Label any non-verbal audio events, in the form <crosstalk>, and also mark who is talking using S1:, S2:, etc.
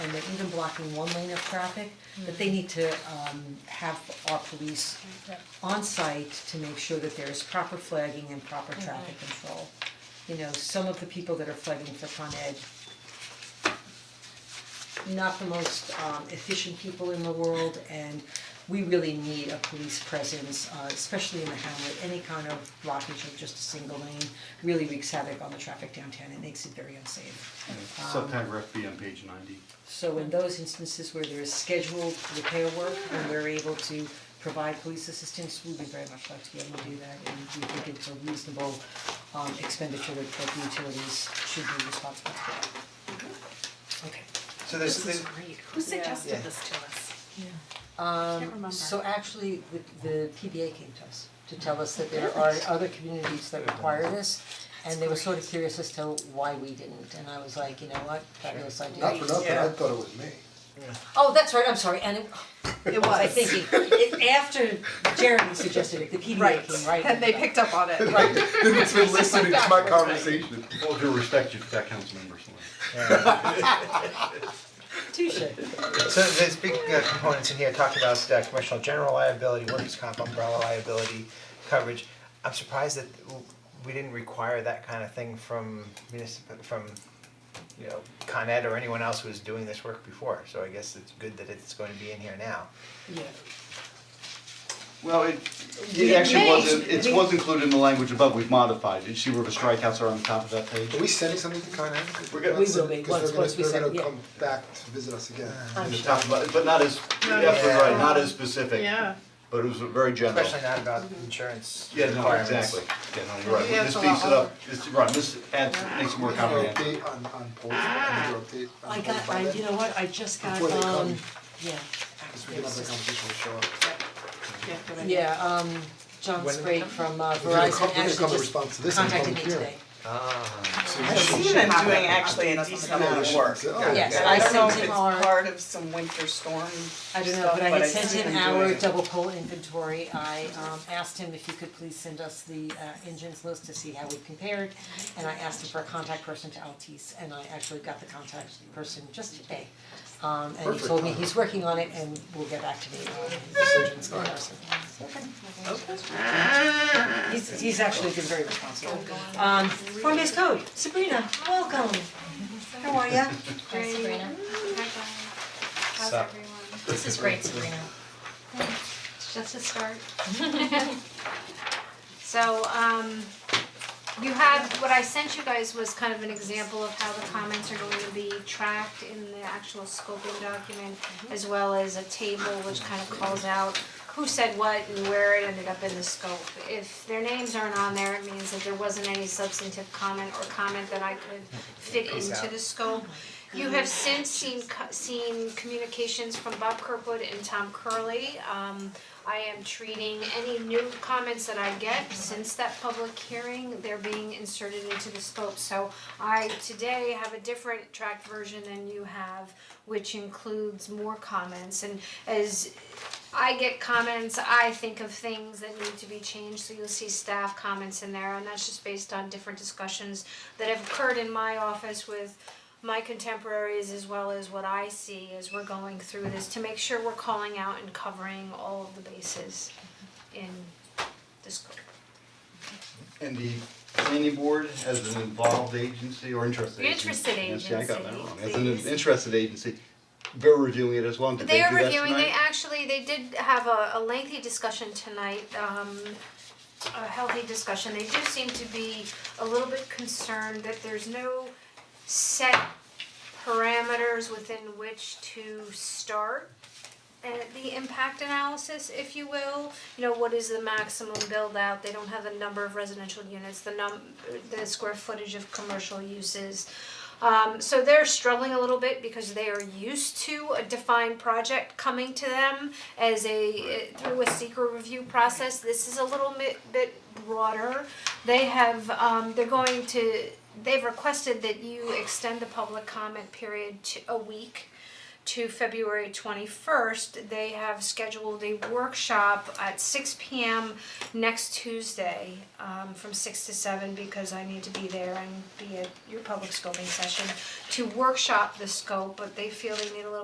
S1: and they're even blocking one lane of traffic, that they need to um have our police on site to make sure that there is proper flagging and proper traffic control. You know, some of the people that are flagging for Con Ed, not the most um efficient people in the world and we really need a police presence, uh especially in the hamlet, any kind of blockage of just a single lane really wreaks havoc on the traffic downtown, it makes it very unsafe.
S2: Subparagraph B on page ninety.
S1: So in those instances where there is scheduled repair work and we're able to provide police assistance, we would very much like to be able to do that and we think it's a reasonable um expenditure that that the utilities should be responsible for. Okay.
S3: So there's, there's,
S4: Who suggested
S3: Yeah.
S4: this to us?
S1: Um
S4: remember.
S1: so actually, the the PBA came to us to tell us that there are other communities that require this. And they were sort of curious as to why we didn't, and I was like, you know what, fabulous idea.
S5: Not for nothing, I
S3: Yeah.
S5: thought it was me.
S1: Oh, that's right, I'm sorry, and it it was, I think, it- it after Jeremy suggested it, the PBA came right.
S4: And
S1: after that.
S4: they picked up on it.
S5: It's been listening to my
S4: Right.
S5: conversation.
S2: All due respect, you've got council members.
S1: Touche.
S3: so there's big uh, components in here talking about uh, commercial general liability, workers' comp, umbrella liability coverage. I'm surprised that we didn't require that kind of thing from municipal, from, you know, Con Ed or anyone else who was doing this work before. So I guess it's good that it's going to be in here now.
S1: Yeah,
S2: Well, it, it
S1: We
S2: actually
S1: may-
S2: was, it
S1: we-
S2: was included in the language above, we've modified, you see where the strikeouts are on the top of that page?
S5: Are we sending something to Con Ed?
S2: We're gonna-
S1: We will be, once- once we
S5: Because they're
S1: send-
S5: gonna,
S1: yeah. Uh,
S5: they're gonna come back to visit us again.
S1: I'm
S2: In the
S1: sure,
S2: top, but, but not as, yeah,
S3: yeah.
S2: right, not as
S4: <laughs>
S2: specific.
S4: Yeah.
S2: But it was very general.
S3: Especially not about insurance
S2: Yeah, no,
S3: requirements.
S2: exactly, yeah, no, you're right,
S4: Yeah, it's
S2: this
S4: a lot
S2: beefs it up, this, right, this adds, makes it more
S5: Is there an
S2: comprehensive.
S5: update on, on polls, Is there an update on
S1: I got, I,
S5: polls by
S1: you know what, I just got,
S5: Before they come.
S1: um, yeah.
S5: Because we can have that conversation with Shaw.
S1: Yeah, um, John
S3: When-
S1: Sprague from uh,
S5: We're gonna
S1: Verizon
S5: come- we're gonna come in
S1: actually just
S5: response to this in
S1: contacted me
S5: public hearing.
S1: today.
S3: Ah,
S5: So you
S6: I've
S5: should-
S6: seen them doing actually a decent amount of work.
S5: Oh,
S1: Yes,
S5: okay.
S1: I
S6: don't know
S1: sent
S6: if
S1: him
S6: it's
S1: our-
S6: part of some winter storm stuff,
S1: I don't know, but I
S6: but
S1: had
S6: I've
S1: sent
S6: seen
S1: him
S6: them
S1: our
S6: doing it.
S1: double pole inventory, I um asked him if he could please send us the uh engines list to see how we compared. And I asked him for a contact person to Altice, and I actually got the contact person just today. Um and he
S5: Perfect
S1: told me
S5: timing.
S1: he's working on it and will get back to me on his engines comparison. He's he's actually been very responsible. Um, form-based code, Sabrina, welcome, how are ya?
S7: Hi Sabrina. Hi How's
S3: Sup?
S7: everyone?
S8: This is great, Sabrina.
S7: It's just a start. <laughs> So, um, you had, what I sent you guys was kind of an example of how the comments are going to be tracked in the actual scoping document,
S3: Mm-hmm.
S7: as well as a table which kind of calls out who said what and where it ended up in the scope. If their names aren't on there, it means that there wasn't any substantive comment or comment that I could fit
S3: Peace
S7: into
S3: out. Oh
S7: the scope. You have since seen co- seen communications from Bob Kirkwood and Tom Curley. Um, I am treating any new comments that I get since that public hearing, they're being inserted into the scope. So I today have a different tracked version than you have, which includes more comments. And as I get comments, I think of things that need to be changed, so you'll see staff comments in there, and that's just based on different discussions that have occurred in my office with my contemporaries as well as what I see as we're going through this, to make sure we're calling out and covering all of the bases in this group.
S2: And the planning board as an involved agency or interested
S7: The
S2: agency?
S7: interested
S2: Yeah, see, I got that
S7: agency,
S2: wrong, as an
S7: please.
S2: interested agency, they're reviewing it as well, did they
S7: They
S2: do that
S7: are
S2: tonight?
S7: reviewing, they actually, they did have a, a lengthy discussion tonight, um, a healthy discussion, they do seem to be a little bit concerned that there's no set parameters within which to start and the impact analysis, if you will, you know, what is the maximum build out, they don't have the number of residential units, the num, the square footage of commercial uses. Um, so they're struggling a little bit because they are used to a defined project coming to them as a, through a secret review process, this is a little bit, bit broader. They have, um, they're going to, they've requested that you extend the public comment period to a week to February twenty-first, they have scheduled a workshop at six P M next Tuesday, um, from six to seven, because I need to be there and be at your public scoping session to workshop the scope, but they feel they need a little